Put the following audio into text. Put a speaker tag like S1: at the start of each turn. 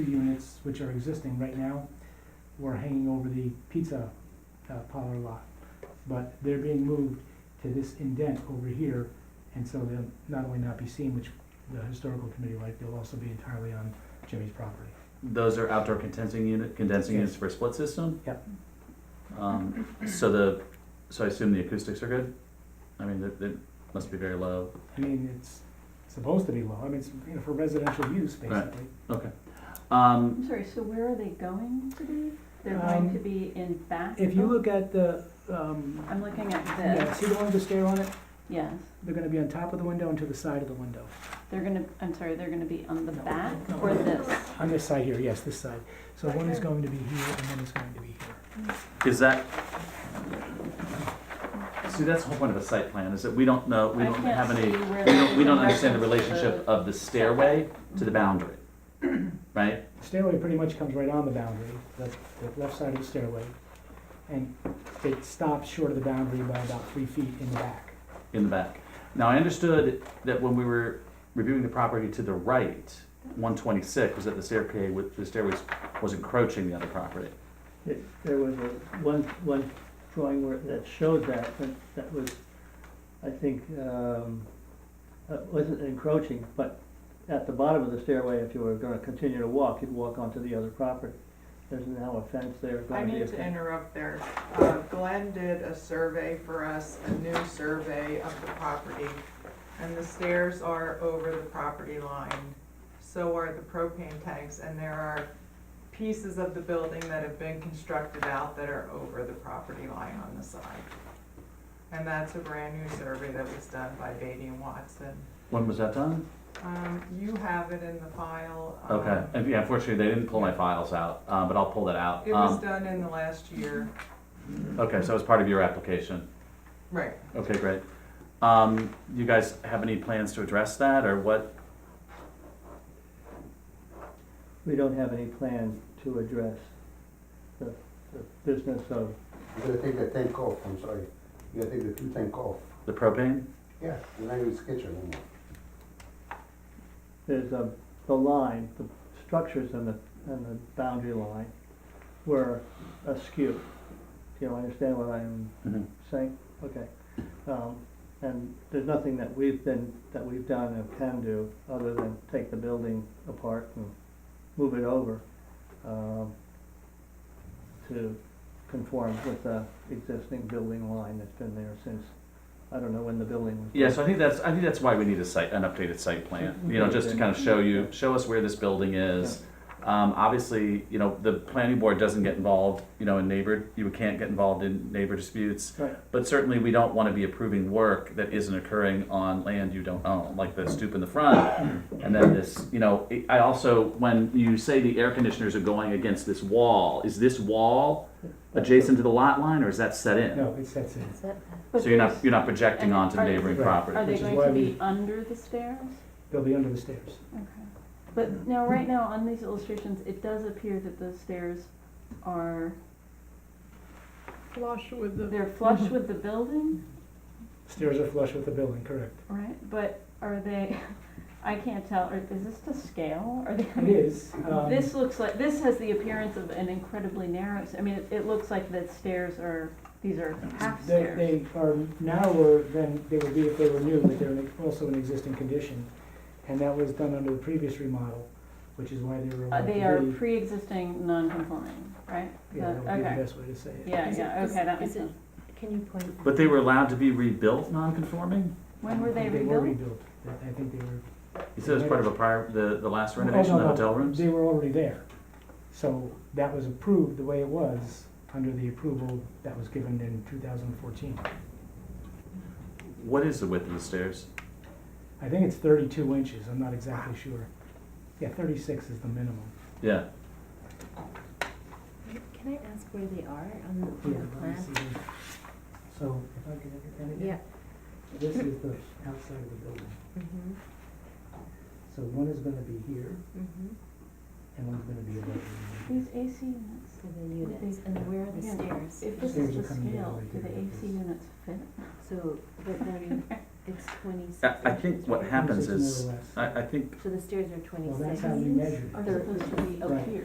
S1: two units which are existing right now were hanging over the pizza uh, parlor lot. But they're being moved to this indent over here, and so they'll not only not be seen, which the historical committee liked, they'll also be entirely on Jimmy's property.
S2: Those are outdoor condensing unit, condensing
S1: Yes.
S2: units for a split system?
S1: Yep.
S2: Um, so the, so I assume the acoustics are good? I mean, they, they must be very low.
S1: I mean, it's supposed to be low, I mean, it's, you know, for residential use,
S2: Right.
S1: basically.
S2: Okay. Um,
S3: I'm sorry, so where are they going to be? They're going
S1: Um,
S3: to be in back? Oh,
S1: If you look at the, um,
S3: I'm looking at
S1: yeah,
S3: this,
S1: see the one with the stair on it?
S3: yes.
S1: They're gonna be on top of the window and to the side of the window.
S3: They're gonna, I'm sorry, they're gonna be on the
S1: No,
S3: back
S1: no.
S3: or this?
S1: On this side here, yes, this side. So one is going to be here and one is going to be here.
S2: Is that, see, that's the whole point of a site plan, is that we don't know, we
S3: I
S2: don't
S3: can't
S2: have any,
S3: see where
S2: we
S3: that
S2: don't,
S3: is
S2: we
S3: in
S2: don't understand the
S3: reference to
S2: relationship of the stairway to the boundary, right?
S1: Stairway pretty much comes right on the boundary, the, the left side of the stairway. And it stops short of the boundary by about three feet in the back.
S2: In the back. Now, I understood that when we were reviewing the property to the right, one twenty-six, was that the stairway, with- the stairways was encroaching the other property.
S4: It- There was a, one, one drawing where, that showed that, but that was, I think, um, it wasn't encroaching, but at the bottom of the stairway, if you were gonna continue to walk, you'd walk onto the other property. There's now a fence there,
S5: I
S4: gonna be a
S5: need to
S4: fence.
S5: interrupt there. Uh, Glenn did a survey for us, a new survey of the property. And the stairs are over the property line, so are the propane tanks, and there are pieces of the building that have been constructed out that are over the property line on the side. And that's a brand new survey that was done by Beatty and Watson.
S2: When was that done?
S5: Um, you have it in the file. um,
S2: Okay, and yeah, unfortunately, they didn't pull my files out, uh, but I'll pull that out.
S5: It was
S2: Um,
S5: done in the last year,
S2: Okay, so it was part of your application.
S5: right.
S2: Okay, great. Um, you guys have any plans to address that or what?
S4: We don't have any plan to address the, the business of,
S6: You gotta take the tank off, I'm sorry. You gotta take the two tank off.
S2: The propane?
S6: Yeah. You're not even sketching anymore.
S4: there's a, the line, the structures and the, and the boundary line were askew. Do you understand what I'm
S2: Mm-hmm.
S4: saying, okay. Um, and there's nothing that we've been, that we've done and can do, other than take the building apart and move it over, um, to conform with the existing building line that's been there since, I don't know when the building was.
S2: Yeah, so I think that's, I think that's why we need a site, an updated site plan, you know, just to kind of show you, show us where this building is. Um, obviously, you know, the planning board doesn't get involved, you know, in neighbor, you can't get involved in neighbor disputes.
S4: Right.
S2: But certainly, we don't want to be approving work that isn't occurring on land you don't own, like the stoop in the front. And then this, you know, it- I also, when you say the air conditioners are going against this wall, is this wall adjacent to the lot line or is that set in?
S1: No, it sets in.
S3: But
S2: So you're not,
S3: there's-
S2: you're not projecting
S3: And
S2: onto the
S3: are-
S2: neighboring
S1: Right.
S2: property?
S3: Are they
S1: which is
S3: going
S1: why
S3: to be
S1: we-
S3: under the stairs?
S1: They'll be under the stairs.
S3: Okay. But now, right now, on these illustrations, it does appear that the stairs are,
S5: Flush with the
S3: they're flush with the building,
S1: Stairs are flush with the building, correct.
S3: right? But are they, I can't tell, Are is this to scale? Are they,
S1: It
S3: I mean,
S1: is, um,
S3: This looks like, this has the appearance of an incredibly narrow, I mean, it, it looks like the stairs are, these are half
S1: they,
S3: stairs.
S1: they are narrower than they would be if they were new, but they're in- also in existing condition. And that was done under the previous remodel, which is why they were.
S3: Uh,
S1: allowed
S3: they
S1: to
S3: are
S1: be-
S3: pre-existing non-conforming, right?
S1: Yeah, that would be the
S3: Okay.
S1: best way to say it.
S3: Yeah,
S7: Is it-
S3: yeah,
S7: is-
S3: okay, that makes
S7: is it-
S3: sense.
S7: Can you point?
S2: But they were allowed to be rebuilt non-conforming?
S3: When were they
S1: They were
S3: rebuilt?
S1: rebuilt. I I think they were
S2: You said it was part of a prior, the, the last
S1: Oh, no,
S2: renovation of the
S1: no,
S2: hotel rooms?
S1: They were already there. So that was approved the way it was under the approval that was given in two thousand and fourteen.
S2: What is the width of the stairs?
S1: I think it's thirty-two inches, I'm not exactly sure. Yeah, thirty-six is the minimum.
S2: Yeah,
S7: Can I ask where they are on the,
S1: Oh, Yeah,
S7: on the
S1: let me
S7: plan?
S1: see here. So if I could look at that
S7: Yeah.
S1: again, this is the outside of the building.
S7: Mm-hmm.
S1: So one is gonna be here
S7: Mm-hmm.
S1: and one's gonna be above. the
S3: These AC units,
S7: So the units, and where are the
S3: Yeah.
S7: stairs?
S3: if this
S1: Stairs
S3: is
S1: are
S3: the
S1: coming down
S3: scale,
S1: right
S3: do
S1: here
S3: the
S1: like
S3: AC
S1: this.
S3: units fit?
S7: So, but then, It's twenty-six.
S2: I, I think what happens
S1: Twenty-six
S2: is,
S1: more or less.
S2: I, I think
S7: So the stairs are twenty-six.
S1: Well, that's how we measure it.
S3: Are supposed to be.
S7: Okay.